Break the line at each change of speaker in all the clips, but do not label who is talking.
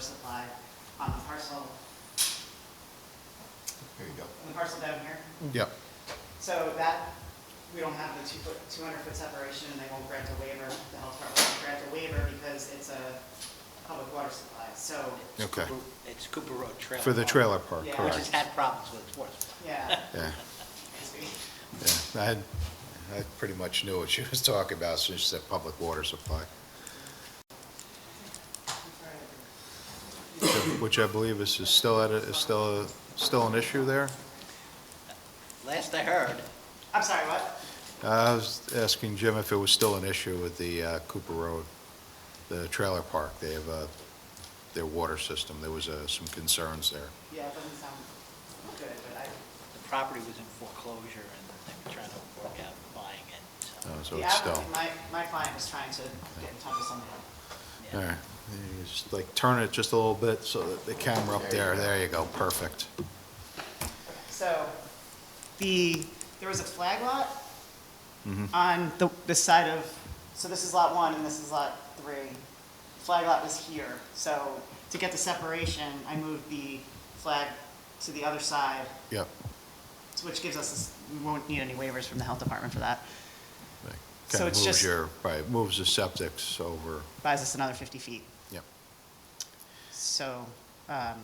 supply on the parcel,
There you go.
on the parcel down here.
Yep.
So that, we don't have the two foot, two hundred foot separation, and they won't grant a waiver, the health department won't grant a waiver because it's a public water supply, so,
Okay.
It's Cooper Road Trailer.
For the
Park,
trailer park,
Yeah.
Which has
correct.
had problems with its water supply.
yeah.
Yeah,
it's we-
yeah. I, had- I pretty much knew what she was talking about, since she said public water supply, which I believe is, is still at, a- is still, a- still an issue there.
Last I heard,
I'm sorry, what?
I was asking Jim if it was still an issue with the uh, Cooper Road, the trailer park. They have, uh, their water system. There was, uh, some concerns there.
Yeah, it doesn't sound good, but I,
the property was in foreclosure and they were trying to work out buying it. so,
Uh, So
the
it's still.
applicant, my, my client was trying to get in touch with somebody.
yeah.
All right, You just, like turn it just a little bit so that the camera up there, there you go, perfect.
So, the, there was a flag lot on the, the side of, so this is lot one and this is lot three. Flag lot was here, so to get the separation, I moved the flag to the other side,
Yep.
so which gives us, this- we won't need any waivers from the health department for that. So
Kind of
it's
moves
just-
your, right, moves the septics over,
Buys us another 50 feet,
yep,
so, um,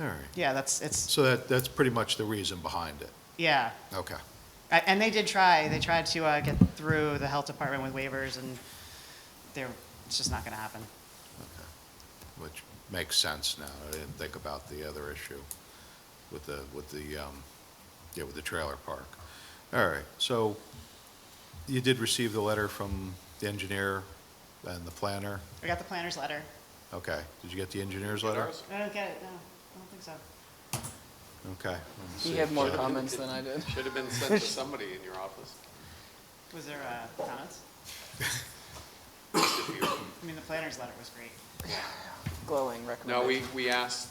all right.
yeah, that's, it's,
So that, that's pretty much the reason behind it,
yeah.
okay.
A- And they did try, they tried to uh, get through the health department with waivers, and they're, it's just not going to happen.
Which makes sense now, I didn't think about the other issue with the, with the, um, yeah, with the trailer park. All right, so you did receive the letter from the engineer and the planner,
I got the planner's letter.
okay. Did you get the engineer's letter?
I don't get it, no, I don't think so.
Okay. let's
He
see.
had more
Yeah.
comments than I did.
Should have been sent to somebody in your office.
Was there uh, comments? I mean, the planner's letter was great.
Glowing recommendation.
No, we, we asked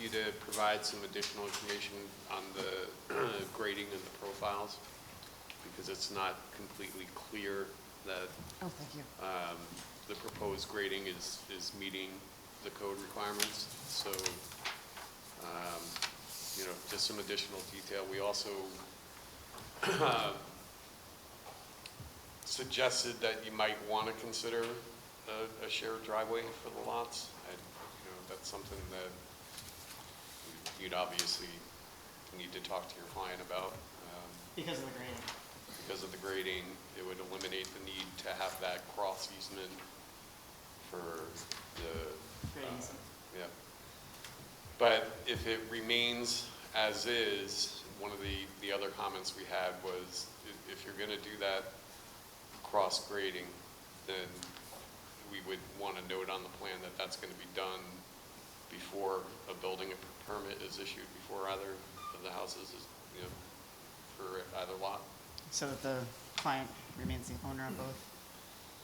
you to provide some additional information on the grading and the profiles, because it's not completely clear that
Oh, thank you.
um, the proposed grading is, is meeting the code requirements. So, um, you know, just some additional detail. We also uh, suggested that you might want to consider a, a shared driveway for the lots. I, you know, that's something that you'd obviously need to talk to your client about. Um,
Because of the grading.
because of the grading, it would eliminate the need to have that cross easement for the,
Grading, so-
yeah. But if it remains as is, one of the, the other comments we had was, i- if you're gonna do that cross grading, then we would wanna note on the plan that that's gonna be done before a building permit is issued, before either of the houses is, you know, for either lot.
So that the client remains the owner of both.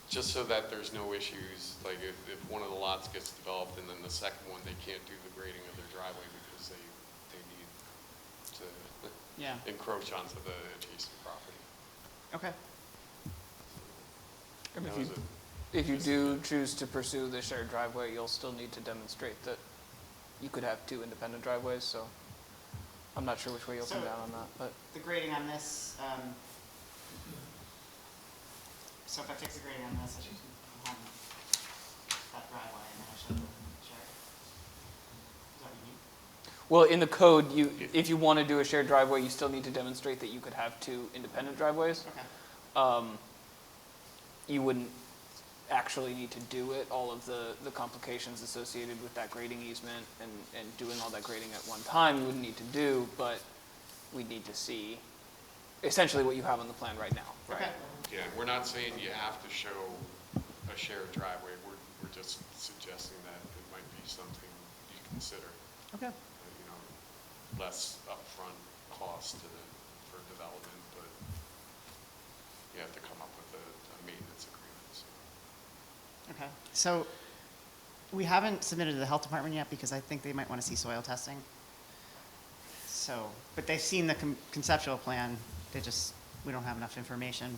Just so that there's no issues, like if, if one of the lots gets developed and then the second one, they can't do the grading of their driveway because they, they need to
Yeah,
encroach onto the adjacent property.
okay.
And
That
if
was
you-
it.
If you do choose to pursue the shared driveway, you'll still need to demonstrate that you could have two independent driveways, so I'm not sure which way you'll come
So-
down on that, but
The grading on this, um, so if I fix the grading on this, I should have that driveway and then I should have the shared. Is that what you need?
Well, in the code, you, if you want to do a shared driveway, you still need to demonstrate that you could have two independent driveways.
Okay,
Um, You wouldn't actually need to do it, all of the, the complications associated with that grading easement and, and doing all that grading at one time, you wouldn't need to do, but we'd need to see essentially what you have on the plan right now.
okay.
Yeah, we're not saying you have to show a shared driveway, we're, we're just suggesting that it might be something you consider,
Okay.
uh, you know, less upfront cost to the, for development, but you have to come up with a, a maintenance agreement, so.
Okay, so we haven't submitted to the health department yet because I think they might want to see soil testing. So, but they've seen the con- conceptual plan, they just, we don't have enough information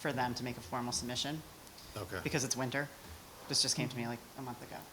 for them to make a formal submission
Okay.
because it's winter. This just came to me like a month ago.